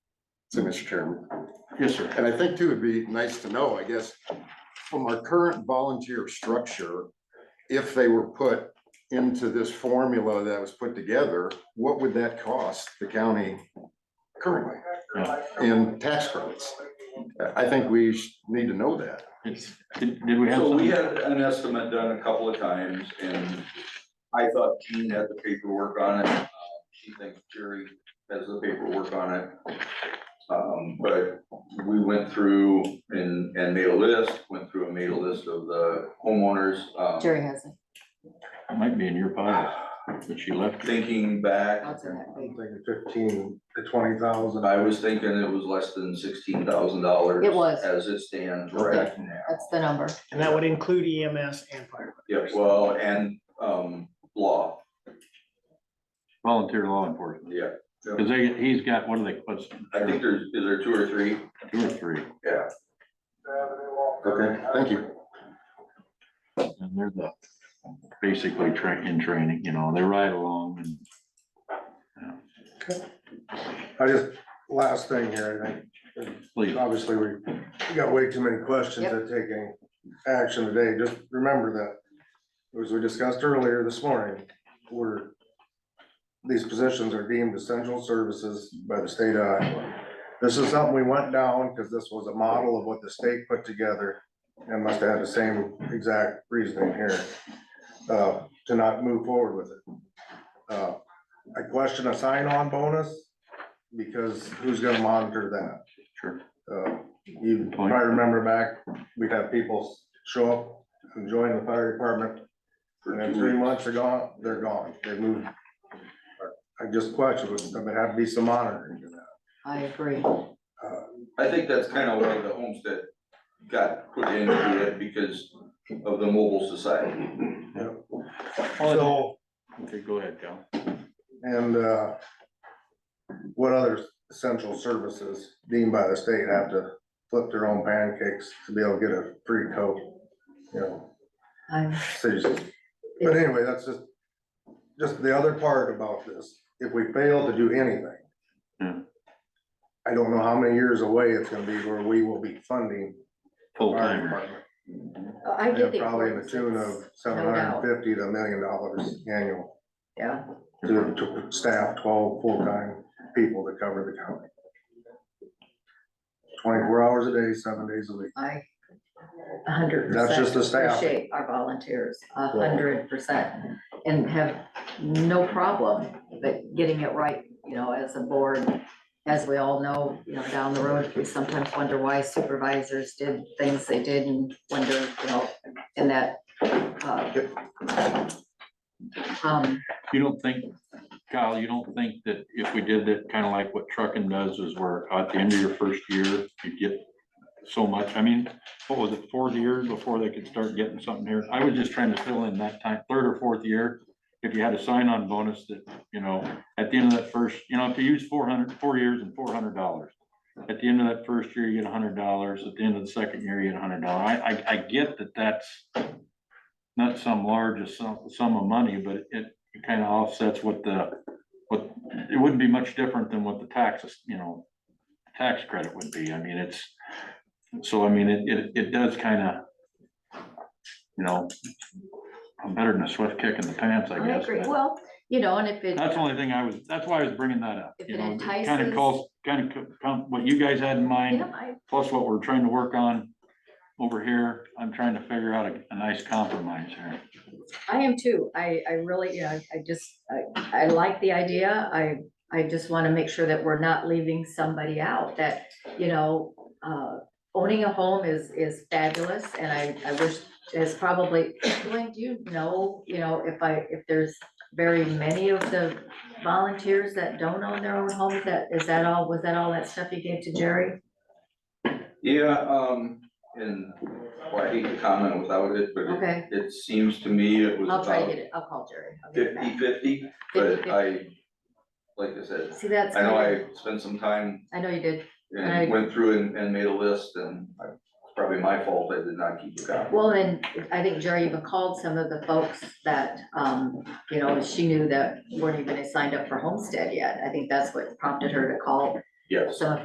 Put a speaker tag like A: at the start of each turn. A: So, Mr. Chairman,
B: Yes, sir.
A: and I think too, it'd be nice to know, I guess, from our current volunteer structure, if they were put into this formula that was put together, what would that cost the county currently
B: Yeah.
A: in tax credits? I think we sh- need to know that.
B: It's- Did did we have
C: So we
B: some?
C: had an estimate done a couple of times and I thought Jean had the paperwork on it. Uh, She thinks Jerry has the paperwork on it. Um, but we went through and, and made a list, went through and made a list of the homeowners. um,
D: Jerry has it.
B: It Might be in your pile, but she left.
C: Thinking back,
D: I'll do that for you.
E: Thinking fifteen to twenty thousand.
C: I was thinking it was less than sixteen thousand dollars.
D: It was.
C: As it stands right now.
D: That's the number.
F: And that would include EMS and fire.
C: Yeah, well, and, um, law,
B: Volunteer law enforcement.
C: yeah.
B: Because they, he's got, what do they, what's
C: I think there's, is there two or three?
B: two or three?
C: Yeah.
A: Okay, thank you.
B: And they're the, basically train, in training, you know, they ride along and
E: I just, last thing here, I
B: please.
E: think, obviously, we we got way too many questions
D: Yep.
E: to take any action today, just remember that, as we discussed earlier this morning, we're, these positions are deemed essential services by the state of Iowa. This is something we went down, because this was a model of what the state put together, and must have had the same exact reasoning here, uh, to not move forward with it. Uh, I question a sign-on bonus, because who's gonna monitor that?
B: Sure.
E: Uh, You
B: Good point.
E: probably remember back, we'd have people show up and join the fire department,
C: for
E: and then
C: two
E: three
C: weeks.
E: months are gone, they're gone, they moved. I just question, there have to be some monitoring to that.
D: I agree.
C: I think that's kind of why the homestead got put into it because of the mobile society.
E: So,
B: Okay, go ahead, Cal.
E: and, uh, what other essential services deemed by the state have to flip their own pancakes to be able to get a free coat? You know,
D: I'm,
E: citizens. But anyway, that's just, just the other part about this, if we fail to do anything.
B: Yeah.
E: I don't know how many years away it's gonna be where we will be funding.
B: Full
E: our
B: timer.
E: department.
D: I get the.
E: Probably in the
D: importance,
E: tune
D: it's-
E: of seven hundred and fifty to a million dollars annual
D: Yeah,
E: to, to staff twelve full-time people to cover the county. Twenty-four hours a day, seven days a week.
D: I a hundred percent.
E: That's just the staff.
D: Appreciate our volunteers, a hundred percent, and have no problem, but getting it right, you know, as a board. As we all know, you know, down the road, we sometimes wonder why supervisors did things they did and wonder, you know, and that. uh, Um,
B: You don't think, Kyle, you don't think that if we did that, kind of like what trucking does is where at the end of your first year, you get so much, I mean, what was it, fourth year before they could start getting something here? I was just trying to fill in that time, third or fourth year. If you had a sign-on bonus that, you know, at the end of that first, you know, if you use four hundred, four years and four hundred dollars. At the end of that first year, you get a hundred dollars. At the end of the second year, you get a hundred dollar. I, I, I get that that's not some large sum, sum of money, but it, it kind of offsets what the, what, it wouldn't be much different than what the taxes, you know, tax credit would be. I mean, it's, so I mean, it, it, it does kind of, you know, I'm better than a swift kick in the pants, I
D: I
B: guess.
D: agree,
B: but-
D: well, you know, and if it.
B: that's the only thing I was, that's why I was bringing that up,
D: If
B: you
D: it
B: know,
D: entices-
B: kind of calls, kind of, what you guys had in
D: Yeah,
B: mind,
D: I,
B: plus what we're trying to work on over here, I'm trying to figure out a, a nice compromise here.
D: I am too. I, I really, you know, I just, I, I like the idea. I, I just want to make sure that we're not leaving somebody out that, you know, uh, owning a home is, is fabulous and I, I wish is probably, Blaine, do you know, you know, if I, if there's very many of the volunteers that don't own their own homes, that, is that all, was that all that stuff you gave to Jerry?
C: Yeah, um, and, well, I hate to comment without it, but it,
D: Okay,
C: it seems to me it was
D: I'll try to
C: about
D: get it. I'll call Jerry. I'll get it back.
C: fifty fifty, but I, like I said,
D: See, that's,
C: I know
D: kinda-
C: I spent some time
D: I know you did. I-
C: and went through and, and made a list and I- it's probably my fault I did not keep a copy.
D: Well, and I think Jerry even called some of the folks that, um, you know, she knew that weren't even signed up for homestead yet. I think that's what prompted her to call
C: Yes.
D: some of